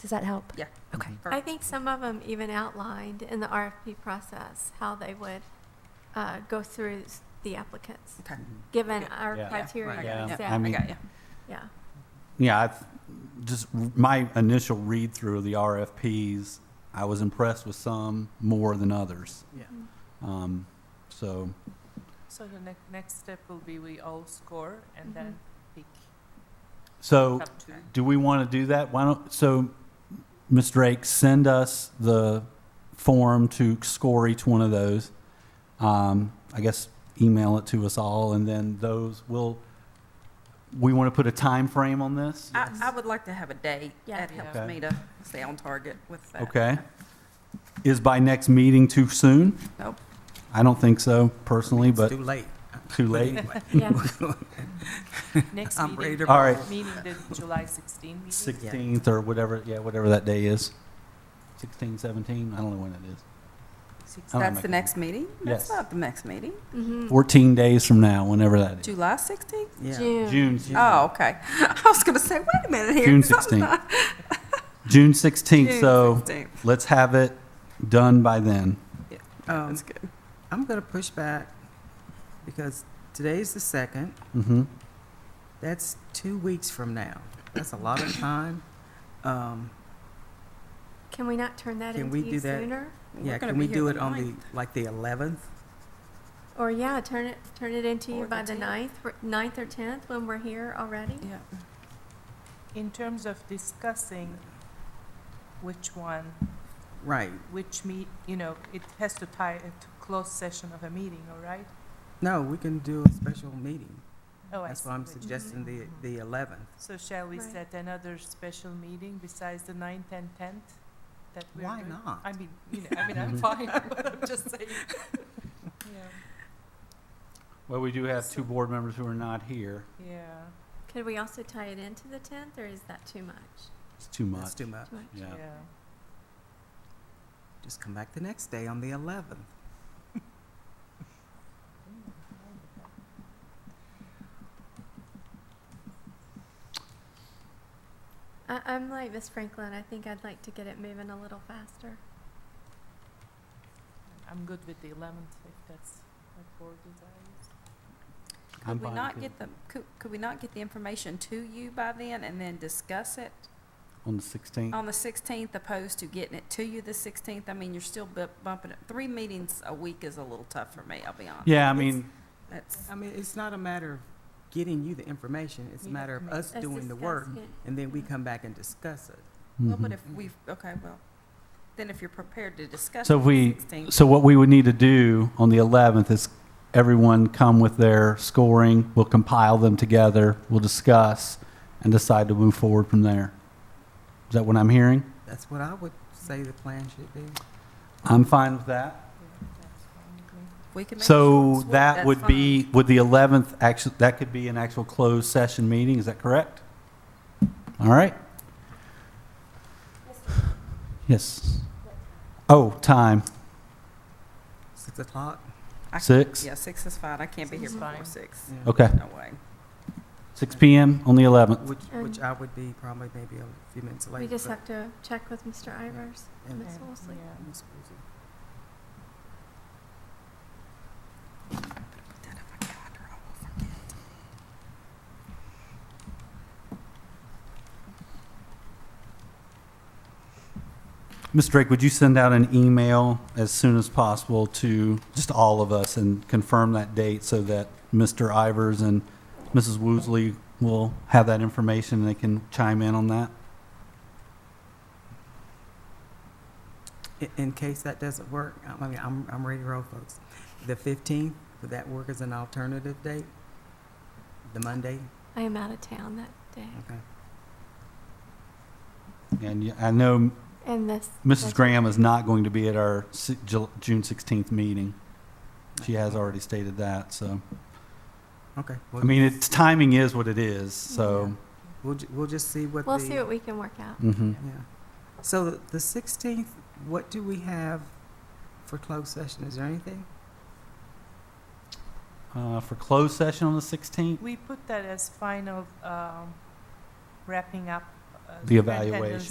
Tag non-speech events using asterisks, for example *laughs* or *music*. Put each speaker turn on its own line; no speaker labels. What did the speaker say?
Does that help?
Yeah.
Okay.
I think some of them even outlined in the RFP process how they would uh, go through s- the applicants,
Okay.
given
Yeah.
our
Yeah.
criteria.
Right.
Yeah.
and
I
I
mean-
got you.
Yeah.
Yeah, I, th- just r- my initial read through the RFPs, I was impressed with some more than others.
Yeah.
Um, so,
So the next, next step will be we all score
Mm-hmm.
and then pick
so
up to.
do we want to do that? Why don't, so, Ms. Drake, send us the form to score each one of those. Um, I guess email it to us all and then those will, we want to put a time frame on this?
I, I would like to have a date.
Yeah.
That helps
Okay.
me to stay on target with that.
Okay. Is by next meeting too soon?
Nope.
I don't think so personally,
It's
but
too late.
too late.
*laughs*
Yeah.
Next
I'm ready
meeting,
to
All right.
meaning the July 16 meeting.
Sixteenth or whatever, yeah, whatever that day is. Sixteen, seventeen, I don't know when it is.
Six-
I don't
That's
make
the
it.
next meeting?
Yes.
That's not the next meeting.
Mhm.
Fourteen days from now, whenever that is.
July sixteenth?
*laughs* Yeah.
June.
June,
Oh, okay. *laughs* I was gonna say, wait a minute here.
June
'cause I'm
sixteenth.
*laughs* not-
June sixteenth,
June
so
16th.
let's have it done by then.
Um,
That's good.
I'm gonna push back because today's the second.
Mm-hmm.
That's two weeks from now. That's a lot of time. Um,
Can we not turn that
Can
into
we
you
do that?
sooner?
yeah, can we do it on the, like, the eleventh?
Or yeah, turn it, turn it into you
Or
by
the
the
10th.
ninth, r- ninth or tenth, when we're here already?
Yeah.
In terms of discussing which one,
Right.
which meet, you know, it has to tie it to closed session of a meeting, all right?
No, we can do a special meeting.
Oh, I
That's
see
why I'm
you.
suggesting the, the eleventh.
So shall we
Right.
set another special meeting besides the 9th and 10th? that we're
Why
doing?
not?
I mean, you know, I mean,
*laughs*
I'm fine, *laughs* but I'm just saying. Yeah,
Well, we do have two board members who are not here.
yeah,
Could we also tie it into the tenth, or is that too much?
It's too much.
That's too much.
Too much?
Yeah.
yeah.
Just come back the next day on the eleventh.
I, I'm like Miss Franklin, I think I'd like to get it moving a little faster.
I'm good with the eleventh, if that's what board desires.
I'm
Could we
fine
not
too.
get the, could, could we not get the information to you by then and then discuss it
On the sixteenth,
on the sixteenth opposed to getting it to you the sixteenth? I mean, you're still bu- bumping it. Three meetings a week is a little tough for me, I'll be honest.
yeah, I mean,
That's,
I mean, it's not a matter of getting you the information, it's a
We have
matter
to
of
make-
us
Let's
doing the
discuss
work,
it.
and then we come back and discuss it.
well, but
mhm.
if we've, okay, well, then if you're prepared to discuss.
So
it
if
the
we-
16th,
So what we would need to do on the 11th is everyone come with their scoring. We'll compile them together. We'll discuss and decide to move forward from there. Is that what I'm hearing?
That's what I would say the plan should be.
I'm fine with that.
Yeah, that's fine with me.
we can make
So
sure
that
that's
would be, would the 11th actually, that could be an actual closed session meeting, is that correct? All right. Yes. Oh, time,
Six o'clock?
I-
six,
fine. Yeah, six is fine. I can't be here
Six is
before
fine.
six.
Yeah.
okay,
No way.
6 PM on the 11th.
Which, which
Um,
I would be probably maybe a few minutes late.
We just
but-
have to check with Mr. Ivers,
and-
Miss Wolseley.
Yeah.
Miss Rosie.
Ms. Drake, would you send out an email as soon as possible to just all of us and confirm that date so that Mr. Ivers and Mrs. Woosley will have that information and they can chime in on that?
In, in case that doesn't work, I I mean, I'm, I'm ready to roll, folks. The fifteenth, would that work as an alternative date? The Monday?
I am out of town that day.
Okay.
And y- I know
And this,
Mrs. Graham is not going to be at our si- Ju- June 16th meeting. She has already stated that, so.
Okay.
I
we'll-
mean, it's, timing is what it is, so.
We'll, ju- we'll just see what the.
Mm-hmm. we'll see what we can work out.
mhm.
Yeah. So the- the sixteenth, what do we have for closed session? Is there anything?
Uh, For closed session on the 16th?
We put that as final, um, wrapping up. uh,
The
superintendent's
evaluation.